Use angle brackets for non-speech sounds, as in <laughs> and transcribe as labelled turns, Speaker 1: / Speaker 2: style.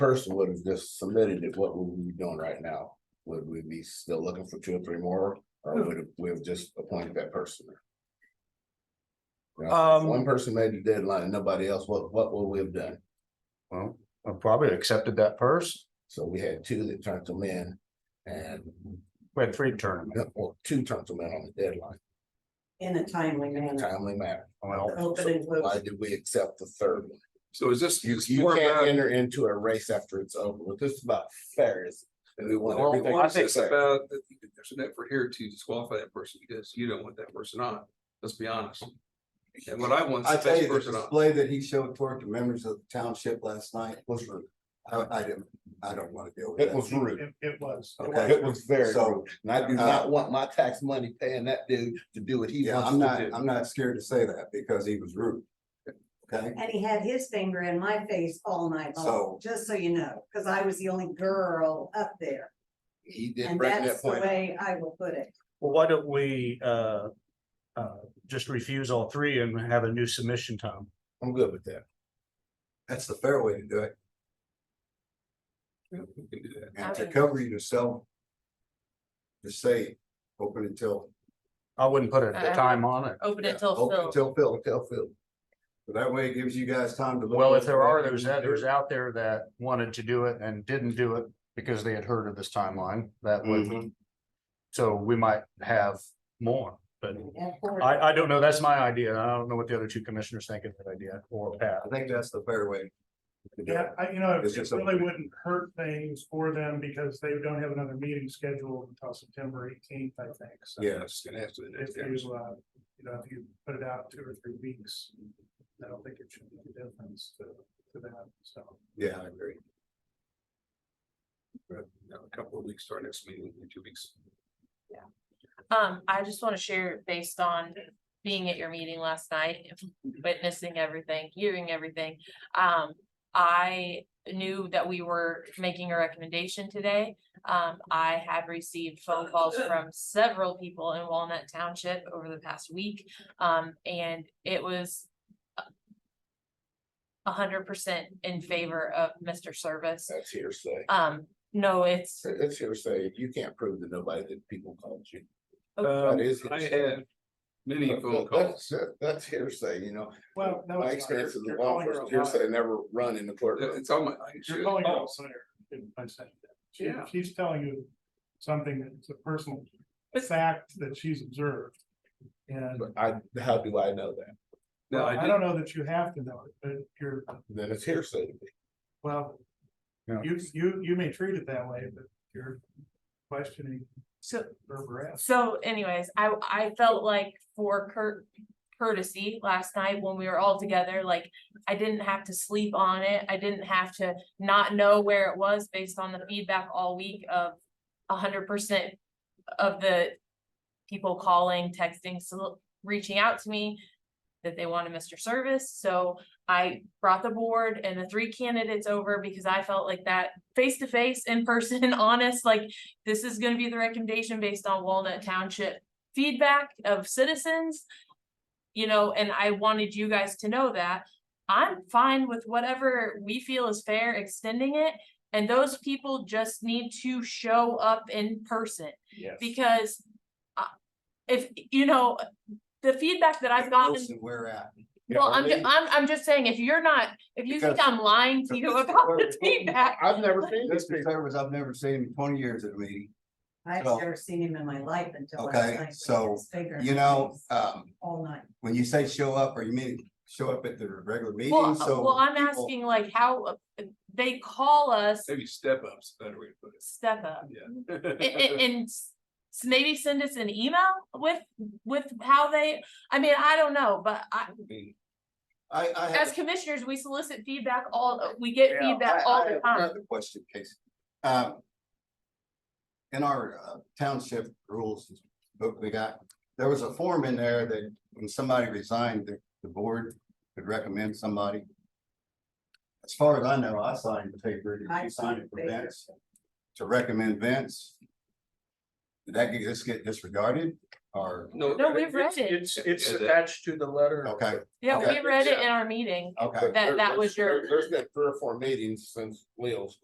Speaker 1: person would have just submitted it, what would we be doing right now? Would we be still looking for two or three more, or would we have just appointed that person? You know, if One
Speaker 2: Um,
Speaker 1: person made the deadline, and nobody else, what, what would we have done?
Speaker 3: Well, I probably accepted that person.
Speaker 1: So we had two that turned them in, and,
Speaker 3: We had three tournaments.
Speaker 1: well, two turned them in on the deadline,
Speaker 4: in a timely
Speaker 1: in a
Speaker 4: manner.
Speaker 1: timely manner.
Speaker 3: Well,
Speaker 4: Open and
Speaker 1: So Why
Speaker 4: close.
Speaker 1: did we accept the third one?
Speaker 5: So is this?
Speaker 1: You, you
Speaker 5: more
Speaker 1: can't
Speaker 5: about-
Speaker 1: enter into a race after it's over, but this is about fairness, and we want
Speaker 5: Or
Speaker 1: everything.
Speaker 5: or
Speaker 3: I
Speaker 5: is
Speaker 3: think
Speaker 5: this
Speaker 3: so.
Speaker 5: about that there's an effort here to disqualify that person because you don't want that person on, let's be honest. And what I want is
Speaker 6: I
Speaker 5: the
Speaker 6: tell
Speaker 5: best
Speaker 6: you, the
Speaker 5: person on.
Speaker 6: display that he showed toward the members of the township last night was rude. I, I didn't, I don't want to deal with
Speaker 1: It
Speaker 6: that.
Speaker 1: was rude.
Speaker 2: it, it was. it
Speaker 6: Okay.
Speaker 2: was.
Speaker 1: It was very
Speaker 6: So,
Speaker 1: rude, and I do
Speaker 6: uh,
Speaker 1: not want my tax money paying that dude to do what he
Speaker 6: Yeah,
Speaker 1: wants
Speaker 6: I'm not,
Speaker 1: to do.
Speaker 6: I'm not scared to say that because he was rude. Okay,
Speaker 4: And he had his finger in my face all night long,
Speaker 6: So-
Speaker 4: just so you know, because I was the only girl up there.
Speaker 1: He did
Speaker 4: And
Speaker 1: bring that
Speaker 4: that's the
Speaker 1: point.
Speaker 4: way I will put it.
Speaker 2: Well, why don't we, uh, uh, just refuse all three and have a new submission time?
Speaker 1: I'm good with that.
Speaker 6: that's the fair way to do it.
Speaker 5: Yeah, we can do that.
Speaker 6: And to
Speaker 7: Okay.
Speaker 6: cover yourself. Just say, open until,
Speaker 3: I wouldn't put a
Speaker 7: I- I
Speaker 3: time on it.
Speaker 7: Open
Speaker 6: yeah,
Speaker 7: it till
Speaker 6: open
Speaker 7: filled.
Speaker 6: until filled.
Speaker 1: Hotel field.
Speaker 6: So that way it gives you guys time to. look
Speaker 3: Well, if
Speaker 6: at
Speaker 3: there
Speaker 6: what
Speaker 3: are
Speaker 6: you
Speaker 3: those
Speaker 6: can do.
Speaker 3: others out there that wanted to do it and didn't do it because they had heard of this timeline, that
Speaker 6: Mm-hmm.
Speaker 2: Mm-hmm.
Speaker 3: would. So we might have more, but
Speaker 4: And for-
Speaker 3: I, I don't know. That's my idea. I don't know what the other two commissioners think of that idea or Pat.
Speaker 6: I think that's the fair way. to do it.
Speaker 8: Yeah, I, you know,
Speaker 6: It's
Speaker 8: it
Speaker 6: just
Speaker 8: really
Speaker 6: something-
Speaker 8: wouldn't hurt things for them because they don't have another meeting scheduled until September eighteenth, I think, so.
Speaker 6: Yeah.
Speaker 5: It's gonna have to. be the
Speaker 8: If
Speaker 5: next
Speaker 8: you,
Speaker 5: guy.
Speaker 8: uh, you know, if you put it out two or three weeks, I don't think it should make a difference to, to that, so.
Speaker 6: Yeah, I agree.
Speaker 5: You know, A couple of weeks, to our next meeting, in two weeks.
Speaker 7: Um, I just want to share based on being at your meeting last night,
Speaker 6: Mm-hmm.
Speaker 7: witnessing everything, hearing everything. Um, I knew that we were making a recommendation today. Um, I have received phone calls from several people in Walnut Township over the past week. Um, and it was a hundred percent in favor of Mr. Service.
Speaker 1: That's hearsay.
Speaker 7: Um, no, it's,
Speaker 1: That's hearsay. You can't prove to nobody that people called you.
Speaker 5: Um,
Speaker 1: is-
Speaker 5: I had many phone calls.
Speaker 1: That's, that's hearsay, you know.
Speaker 8: Well, no,
Speaker 1: My
Speaker 8: it's not. You're-
Speaker 1: experience as a
Speaker 8: you're
Speaker 1: law
Speaker 8: calling her
Speaker 1: enforcement,
Speaker 8: a liar.
Speaker 1: hearsay never run in the courtroom.
Speaker 5: It's on my.
Speaker 8: You're calling her a liar by saying that. She,
Speaker 5: Oh. Yeah.
Speaker 8: she's telling you something that's a personal
Speaker 7: But-
Speaker 8: fact that she's observed. And
Speaker 1: But I, how do I know that?
Speaker 5: No,
Speaker 8: well,
Speaker 5: I
Speaker 8: I
Speaker 5: did,
Speaker 8: don't know that you have to know it, but you're,
Speaker 1: Then it's hearsay to me.
Speaker 8: well,
Speaker 3: Yeah.
Speaker 8: you, you, you may treat it that way, but you're questioning
Speaker 7: so
Speaker 8: her veracity.
Speaker 7: So anyways, I, I felt like for cur- courtesy last night when we were all together, like I didn't have to sleep on it. I didn't have to not know where it was based on the feedback all week of a hundred percent of the people calling, texting, so reaching out to me that they wanted Mr. Service. So I brought the board and the three candidates over because I felt like that face to face, in person, <laughs> honest, like this is gonna be the recommendation based on Walnut Township feedback of citizens. You know, and I wanted you guys to know that I'm fine with whatever we feel is fair, extending it. And those people just need to show up in person. Because uh, if, you know, the feedback that I've gotten,
Speaker 6: Listen, Where at?
Speaker 7: well, I'm, ju-
Speaker 1: Really?
Speaker 7: I'm, I'm just saying, if you're not, if you think
Speaker 6: Because-
Speaker 7: I'm lying to you
Speaker 6: because-
Speaker 7: about <laughs> the feedback,
Speaker 1: I've never seen this
Speaker 6: Mr.
Speaker 1: before.
Speaker 6: Service, I've never seen him in twenty years at a meeting.
Speaker 4: I've
Speaker 6: so-
Speaker 4: never seen him in my life until last
Speaker 6: Okay,
Speaker 4: night. with
Speaker 6: so,
Speaker 4: his finger in
Speaker 6: You
Speaker 4: my
Speaker 6: know,
Speaker 4: face
Speaker 6: um,
Speaker 4: All night.
Speaker 6: when you say show up, are you meaning show up at the regular meeting?
Speaker 7: Well, uh,
Speaker 6: So.
Speaker 7: well, I'm
Speaker 6: people-
Speaker 7: asking like how uh, they call us
Speaker 5: maybe step ups, better way to put
Speaker 6: <laughs>
Speaker 7: step up
Speaker 5: it,
Speaker 7: A- <laughs> a-
Speaker 5: yeah. <laughs>
Speaker 7: and s- maybe send us an email with, with how they, I mean, I don't know, but I,
Speaker 6: I, I
Speaker 7: as
Speaker 6: have
Speaker 7: commissioners, we solicit feedback all, we get
Speaker 6: Yeah,
Speaker 7: feedback
Speaker 6: I-
Speaker 7: all
Speaker 6: I
Speaker 7: the
Speaker 6: have
Speaker 7: time.
Speaker 6: Another question, Casey. Um, In our uh, township rules book we got, there was a form in there that when somebody resigned, the, the board could recommend somebody. As far as I know, I signed the paper, did
Speaker 4: I
Speaker 6: you signed it
Speaker 4: signed the
Speaker 6: for
Speaker 4: paper.
Speaker 6: Vince, to recommend Vince. Did that get, just get disregarded? or,
Speaker 5: No.
Speaker 7: No, we've read
Speaker 3: It's-
Speaker 7: it.
Speaker 3: It's, it's
Speaker 5: Yeah, that-
Speaker 3: attached to the letter.
Speaker 6: okay,
Speaker 7: Yeah,
Speaker 6: Okay.
Speaker 7: we read it in our meeting.
Speaker 6: okay.
Speaker 7: That- that was your-
Speaker 1: There's been three or four meetings since Leo's